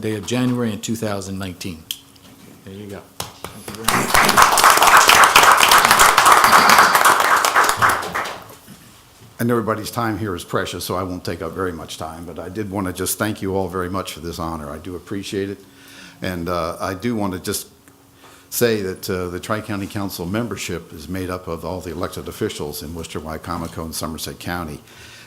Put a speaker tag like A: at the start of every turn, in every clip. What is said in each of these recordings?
A: day of January in 2019. There you go. Thank you very much.
B: And everybody's time here is precious, so I won't take up very much time, but I did want to just thank you all very much for this honor. I do appreciate it. And uh, I do want to just say that uh, the Tri-County Council membership is made up of all the elected officials in Worcester, Wycomico, and Somerset County.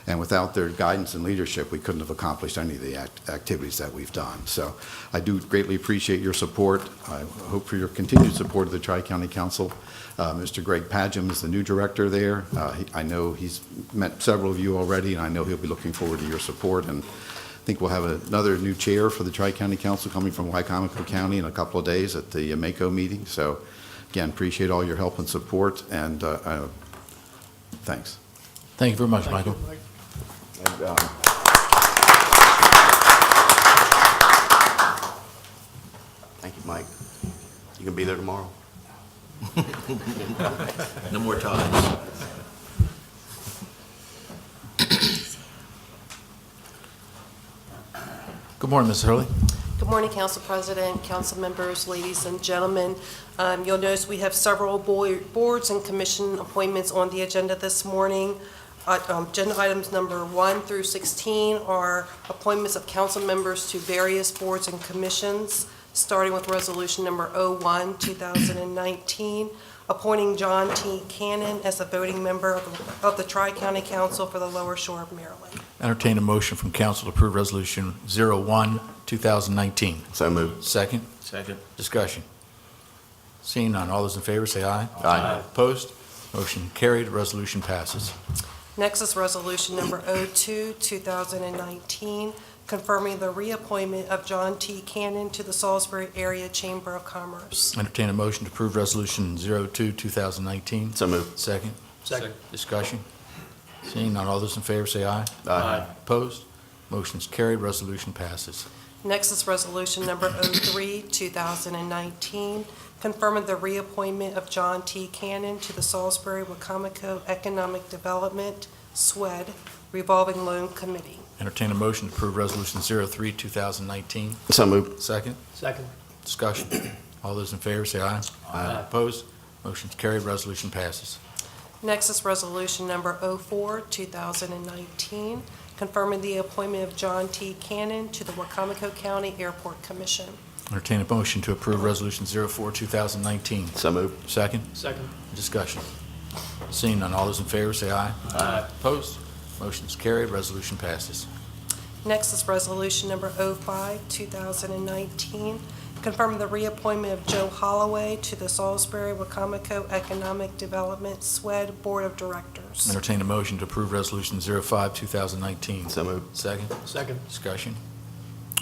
B: And without their guidance and leadership, we couldn't have accomplished any of the act- activities that we've done. So I do greatly appreciate your support. I hope for your continued support of the Tri-County Council. Uh, Mr. Greg Pagem is the new director there. Uh, he- I know he's met several of you already, and I know he'll be looking forward to your support. And I think we'll have another new chair for the Tri-County Council coming from Wycomico County in a couple of days at the Mako meeting. So again, appreciate all your help and support, and uh, uh, thanks.
A: Thank you very much, Michael.
B: And, uh,
C: Thank you, Mike. You gonna be there tomorrow? No more ties.
A: Good morning, Ms. Hurley.
D: Good morning, Council President, council members, ladies and gentlemen. Um, You'll notice we have several boi- boards and commission appointments on the agenda this morning. Uh, um, Agenda items number one through 16 are appointments of council members to various boards and commissions, starting with Resolution Number 01, 2019, appointing John T. Cannon as a voting member of the- of the Tri-County Council for the Lower Shore of Maryland.
A: Entertain a motion from council to approve Resolution 01, 2019.
C: So moved.
A: Second,
C: Second.
A: discussion. Seeing none, all those in favor say aye.
C: Aye.
A: Opposed? Motion carried, resolution passes.
D: Next is Resolution Number 02, 2019, confirming the reappointment of John T. Cannon to the Salisbury Area Chamber of Commerce.
A: Entertain a motion to approve Resolution 02, 2019.
C: So moved.
A: Second,
E: Second.
A: discussion. Seeing none, all those in favor say aye.
C: Aye.
A: Opposed? Motion's carried, resolution passes.
D: Next is Resolution Number 03, 2019, confirming the reappointment of John T. Cannon to the Salisbury Wacomico Economic Development SWED Revolving Loan Committee.
A: Entertain a motion to approve Resolution 03, 2019.
C: So moved.
A: Second,
E: Second.
A: discussion. All those in favor say aye.
E: Aye.
A: Opposed? Motion's carried, resolution passes.
D: Next is Resolution Number 04, 2019, confirming the appointment of John T. Cannon to the Wacomico County Airport Commission.
A: Entertain a motion to approve Resolution 04, 2019.
C: So moved.
A: Second,
E: Second.
A: discussion. Seeing none, all those in favor say aye.
E: Aye.
A: Opposed? Motion's carried, resolution passes.
D: Next is Resolution Number 05, 2019, confirming the reappointment of Joe Holloway to the Salisbury Wacomico Economic Development SWED Board of Directors.
A: Entertain a motion to approve Resolution 05, 2019.
C: So moved.
A: Second,
E: Second.
A: discussion.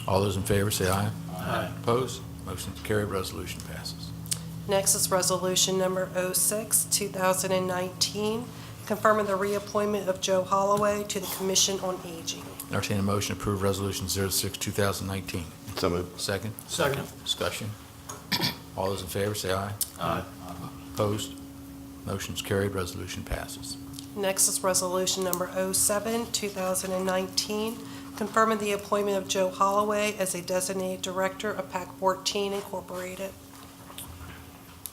A: All those in favor say aye.
E: Aye.
A: Opposed? Motion's carried, resolution passes.
D: Next is Resolution Number 06, 2019, confirming the reappointment of Joe Holloway to the Commission on Aging.
A: Entertain a motion to approve Resolution 06, 2019.
C: So moved.
A: Second,
E: Second.
A: discussion. All those in favor, say aye.
E: Aye.
A: Opposed? Motion's carried, resolution passes.
D: Next is Resolution Number 07, 2019, confirming the appointment of Joe Holloway as a designated director of PAC 14 Incorporated.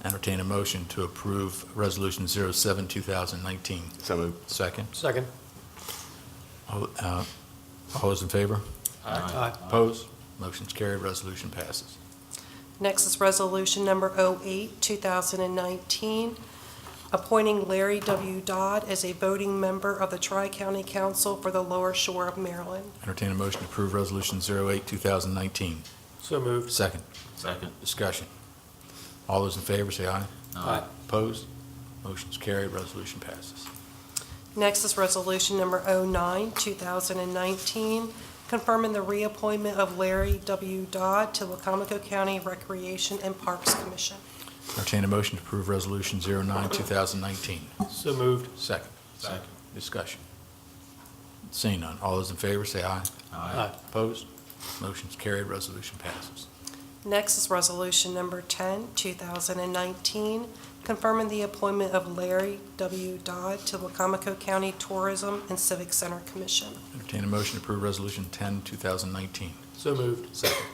A: Entertain a motion to approve Resolution 07, 2019.
C: So moved.
A: Second,
E: Second.
A: all uh, all those in favor?
E: Aye.
A: Opposed? Motion's carried, resolution passes.
D: Next is Resolution Number 08, 2019, appointing Larry W. Dodd as a voting member of the Tri-County Council for the Lower Shore of Maryland.
A: Entertain a motion to approve Resolution 08, 2019.
E: So moved.
A: Second,
F: Second.
A: discussion. All those in favor, say aye.
E: Aye.
A: Opposed? Motion's carried, resolution passes.
D: Next is Resolution Number 09, 2019, confirming the reappointment of Larry W. Dodd to Wacomico County Recreation and Parks Commission.
A: Entertain a motion to approve Resolution 09, 2019.
E: So moved.
A: Second.
F: Second.
A: Discussion. Seeing none, all those in favor say aye.
E: Aye.
A: Opposed? Motion's carried, resolution passes.
D: Next is Resolution Number 10, 2019, confirming the appointment of Larry W. Dodd to Wacomico County Tourism and Civic Center Commission.
A: Entertain a motion to approve Resolution 10, 2019.
E: So moved.
A: Second.